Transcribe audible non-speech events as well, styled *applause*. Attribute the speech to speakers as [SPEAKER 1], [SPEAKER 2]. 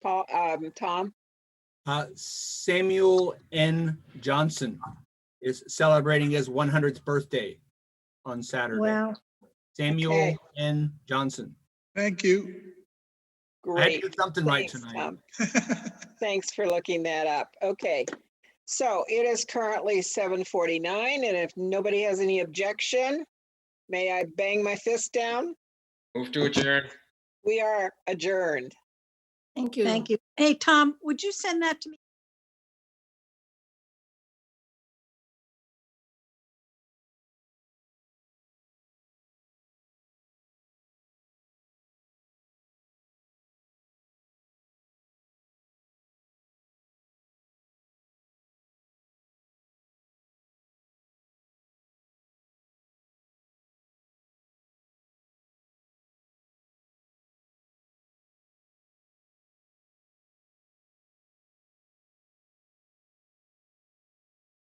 [SPEAKER 1] um, Tom?
[SPEAKER 2] Uh, Samuel N. Johnson is celebrating his 100th birthday on Saturday.
[SPEAKER 3] Wow,
[SPEAKER 2] Samuel
[SPEAKER 1] Okay.
[SPEAKER 2] N. Johnson.
[SPEAKER 4] Thank you. *laughs*
[SPEAKER 1] Great.
[SPEAKER 2] I had to do something right
[SPEAKER 1] Thanks,
[SPEAKER 2] tonight.
[SPEAKER 1] Tom. Thanks for looking that up. Okay. So it is currently seven forty-nine, and if nobody has any objection, may I bang my fist down?
[SPEAKER 5] Move to adjourn.
[SPEAKER 1] We are adjourned.
[SPEAKER 6] Thank you.
[SPEAKER 3] thank you. Hey, Tom, would you send that to me?